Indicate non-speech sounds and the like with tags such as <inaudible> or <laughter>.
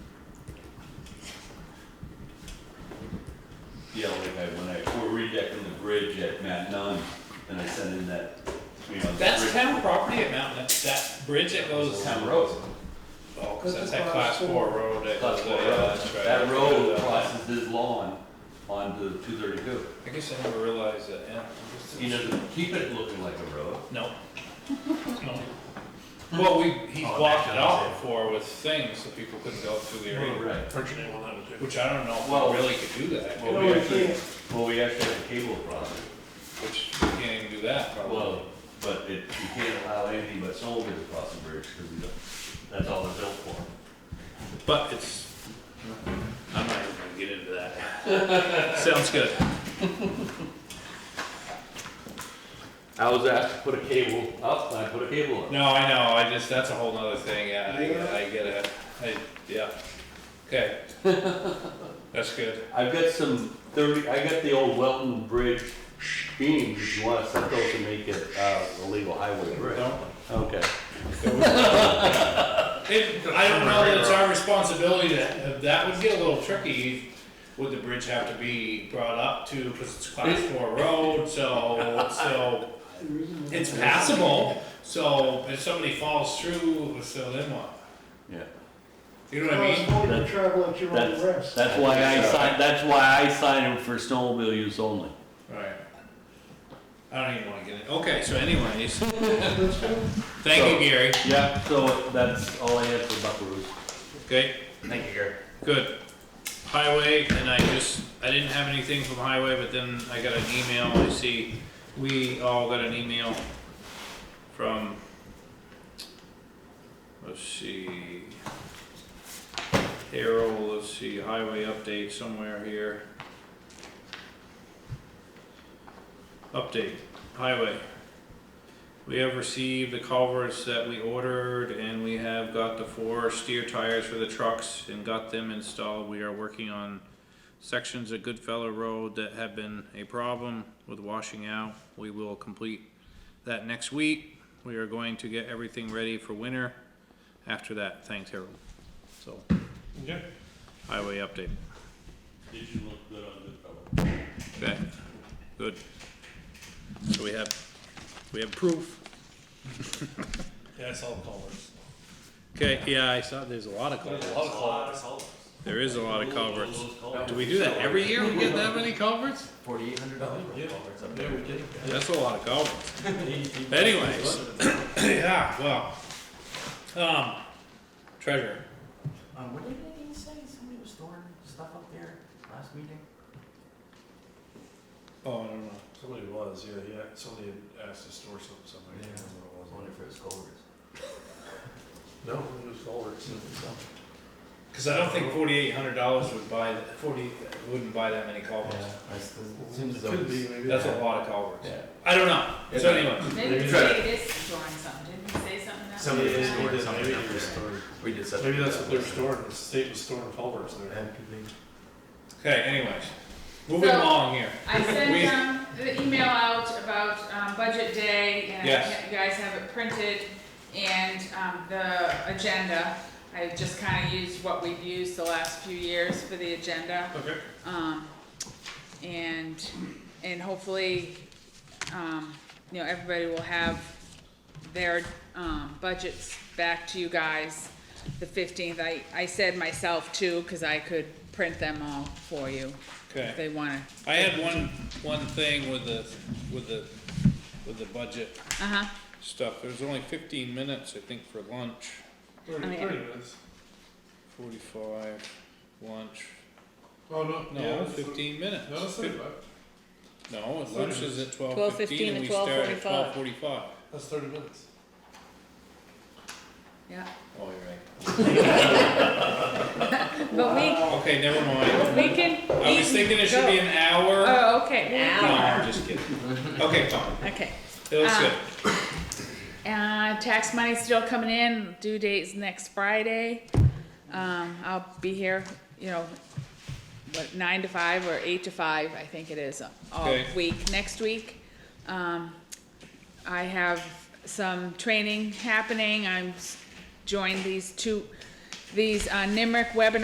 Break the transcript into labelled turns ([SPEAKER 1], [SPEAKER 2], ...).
[SPEAKER 1] redecking the bridge at Mount Nine, and I sent in that, you know. the
[SPEAKER 2] That's
[SPEAKER 1] bridge-
[SPEAKER 2] town property at Mountain, that, that bridge that goes.
[SPEAKER 1] It's town road.
[SPEAKER 2] Oh, 'cause that's that class four road that goes, yeah, that's right.
[SPEAKER 1] That road
[SPEAKER 2] Uh,
[SPEAKER 1] crosses his lawn onto two thirty-two.
[SPEAKER 2] I guess I never realized that, yeah.
[SPEAKER 1] You know, keep it looking like a road.
[SPEAKER 2] No. <laughs> No. Well, we, he
[SPEAKER 3] Oh,
[SPEAKER 2] blocked
[SPEAKER 3] that
[SPEAKER 2] it off
[SPEAKER 3] does
[SPEAKER 2] before with things, so people couldn't go through the area,
[SPEAKER 1] Right.
[SPEAKER 3] French name on that too.
[SPEAKER 2] which I don't know if
[SPEAKER 1] Well-
[SPEAKER 2] we really could do that,
[SPEAKER 1] Well, we actually, well, we actually have a cable across it.
[SPEAKER 2] which we can't even do that probably.
[SPEAKER 1] Well, but it, you can't allow anything but soldiers across the bridge, because we don't, that's all they're built for.
[SPEAKER 2] But it's, I'm not even gonna get into that.
[SPEAKER 1] <laughs>
[SPEAKER 2] Sounds good.
[SPEAKER 1] I was asked to put a cable up, and I put a cable up.
[SPEAKER 2] No, I know, I just, that's a whole nother thing, yeah, I, I get it, I, yeah, okay. <laughs> That's good,
[SPEAKER 1] I've got some thirty, I got the old Welton Bridge beams, if you want to set those to make it, uh, a legal highway bridge.
[SPEAKER 2] don't,
[SPEAKER 1] Okay.
[SPEAKER 2] It, I don't know that it's our responsibility to, that would get a little tricky. Would the bridge have to be brought up to, because it's class four road, so, so, it's passable. So if somebody falls through, so then what?
[SPEAKER 1] Yeah.
[SPEAKER 2] You know what I mean?
[SPEAKER 4] Well, you travel at your own
[SPEAKER 1] That's,
[SPEAKER 4] risk.
[SPEAKER 1] that's why I signed, that's why I signed them for snowmobile use only.
[SPEAKER 2] Right. I don't even wanna get it, okay, so anyways,
[SPEAKER 4] That's good.
[SPEAKER 2] thank you, Gary,
[SPEAKER 1] Yeah, so that's all I had for Buckaroo's.
[SPEAKER 2] okay,
[SPEAKER 3] Thank you, Gary.
[SPEAKER 2] good. Highway, and I just, I didn't have anything from highway, but then I got an email, I see, we all got an email from, let's see, Harold, let's see, highway update somewhere here. Update, highway. We have received the culverts that we ordered and we have got the four steer tires for the trucks and got them installed. We are working on sections of Goodfellow Road that have been a problem with washing out. We will complete that next week. We are going to get everything ready for winter after that. Thanks, Harold. So,
[SPEAKER 3] Okay.
[SPEAKER 2] highway update.
[SPEAKER 1] Did you look good on Goodfellow?
[SPEAKER 2] Okay, good. So we have, we have proof.
[SPEAKER 3] Yeah, I saw the culverts.
[SPEAKER 2] Okay, yeah, I saw there's a lot of
[SPEAKER 3] There's
[SPEAKER 2] culverts.
[SPEAKER 3] a lot of culverts.
[SPEAKER 2] There is a lot of culverts. Do we do that every year? We get that many culverts?
[SPEAKER 5] Forty-eight hundred dollars for
[SPEAKER 3] Yeah.
[SPEAKER 5] culverts up
[SPEAKER 3] Yeah,
[SPEAKER 5] there.
[SPEAKER 3] we did.
[SPEAKER 2] That's a lot of culverts.
[SPEAKER 5] Anything-
[SPEAKER 2] Anyways, <clears throat> yeah, well, um, treasure.
[SPEAKER 5] Um, what did they say? Somebody was storing stuff up there last meeting?
[SPEAKER 2] Oh, I don't know.
[SPEAKER 3] Somebody was, yeah, yeah, somebody had asked to store something somewhere, I can't
[SPEAKER 5] I was
[SPEAKER 3] remember what it was.
[SPEAKER 5] wondering if it was culverts.
[SPEAKER 3] No, it was culverts.
[SPEAKER 2] Cause I don't think forty-eight hundred dollars would buy, forty, wouldn't buy that many culverts.
[SPEAKER 5] I s- It seems as though
[SPEAKER 3] Could be,
[SPEAKER 5] it's.
[SPEAKER 3] maybe.
[SPEAKER 2] That's a lot of culverts.
[SPEAKER 5] Yeah.
[SPEAKER 2] I don't know. So anyway,
[SPEAKER 6] Maybe
[SPEAKER 5] Maybe
[SPEAKER 6] David is drawing something, didn't he say something about
[SPEAKER 5] Somebody
[SPEAKER 3] Yeah,
[SPEAKER 5] was
[SPEAKER 3] they
[SPEAKER 6] that?
[SPEAKER 5] storing
[SPEAKER 3] did,
[SPEAKER 5] something
[SPEAKER 3] maybe
[SPEAKER 5] up
[SPEAKER 3] they
[SPEAKER 5] there.
[SPEAKER 3] restored.
[SPEAKER 5] We did something.
[SPEAKER 3] Maybe that's
[SPEAKER 5] up
[SPEAKER 3] what they're
[SPEAKER 5] there.
[SPEAKER 3] storing, the state was storing culverts there.
[SPEAKER 5] That could be.
[SPEAKER 2] okay, anyways, moving
[SPEAKER 6] So-
[SPEAKER 2] along here.
[SPEAKER 6] I
[SPEAKER 2] We-
[SPEAKER 6] sent um, the email out about um, budget day, and
[SPEAKER 2] Yes.
[SPEAKER 6] you guys have it printed, and um, the agenda. I just kind of used what we've used the last few years for the agenda.
[SPEAKER 2] Okay.
[SPEAKER 6] Um, and, and hopefully, um, you know, everybody will have their, um, budgets back to you guys the fifteenth. I, I said myself too, cause I could print them all for you
[SPEAKER 2] Okay.
[SPEAKER 6] if they wanna.
[SPEAKER 2] I had one, one thing with the, with the, with the budget
[SPEAKER 6] Uh-huh.
[SPEAKER 2] stuff. There was only fifteen minutes, I think, for lunch.
[SPEAKER 3] Thirty,
[SPEAKER 6] I mean,
[SPEAKER 3] thirty minutes.
[SPEAKER 2] Forty-five, lunch.
[SPEAKER 3] Oh, no, yeah,
[SPEAKER 2] No,
[SPEAKER 3] it's-
[SPEAKER 2] fifteen minutes.
[SPEAKER 3] No, that's
[SPEAKER 2] Fif-
[SPEAKER 3] thirty-five,
[SPEAKER 2] No,
[SPEAKER 3] Thirty
[SPEAKER 2] lunch is at twelve fifteen and we start at twelve forty-five.
[SPEAKER 3] that's thirty minutes.
[SPEAKER 6] Yeah,
[SPEAKER 2] Oh, you're
[SPEAKER 6] but
[SPEAKER 2] right. Okay, never mind.
[SPEAKER 6] we, we can eat
[SPEAKER 2] I was thinking it should be an hour.
[SPEAKER 6] Oh, okay.
[SPEAKER 2] No, I'm just kidding. Okay, fine.
[SPEAKER 6] Okay.
[SPEAKER 2] It looks
[SPEAKER 6] Um,
[SPEAKER 2] good.
[SPEAKER 6] Uh, tax money's still coming in, due date's next Friday. Um, I'll be here, you know, what, nine to five or eight to five, I think it is, all
[SPEAKER 2] Okay.
[SPEAKER 6] week, next week. Um, I have some training happening, I'm s- joined these two, these, uh, NIMRIC webinars.